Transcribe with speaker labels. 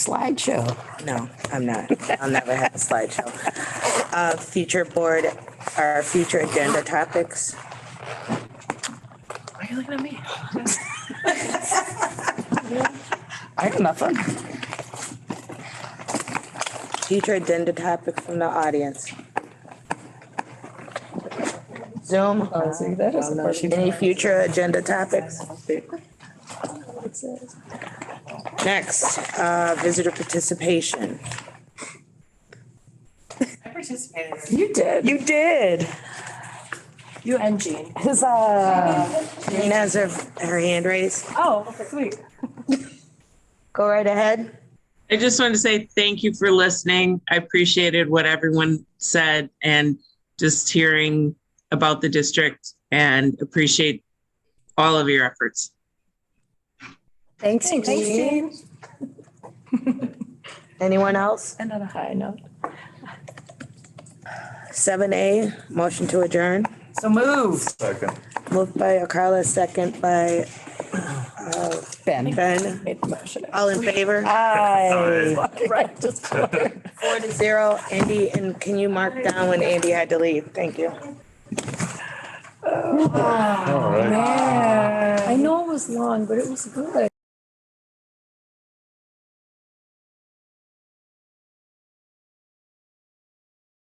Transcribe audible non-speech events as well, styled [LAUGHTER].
Speaker 1: slideshow.
Speaker 2: No, I'm not. I'll never have a slideshow. Uh, future board, our future agenda topics.
Speaker 3: Why are you looking at me?
Speaker 1: [LAUGHS] I have nothing.
Speaker 2: Future agenda topic from the audience. Zoom. Any future agenda topics? Next, uh, visitor participation.
Speaker 3: I participated.
Speaker 1: You did.
Speaker 4: You did.
Speaker 3: You and Jean.
Speaker 4: Huzzah.
Speaker 2: Jean has her, her hand raised.
Speaker 3: Oh, sweet.
Speaker 2: Go right ahead.
Speaker 5: I just wanted to say thank you for listening. I appreciated what everyone said and just hearing about the district and appreciate all of your efforts.
Speaker 2: Thanks, Jean. Anyone else?
Speaker 1: And on a high note.
Speaker 2: Seven A, motion to adjourn.
Speaker 4: So moved.
Speaker 6: Second.
Speaker 2: Moved by Carla, second by uh,
Speaker 1: Ben
Speaker 2: Ben.
Speaker 1: made the motion.
Speaker 2: All in favor?
Speaker 4: Aye.
Speaker 1: [LAUGHS] Right, just.
Speaker 2: Four to zero. Andy, and can you mark down when Andy had to leave? Thank you.
Speaker 6: All right.
Speaker 1: I know it was long, but it was good.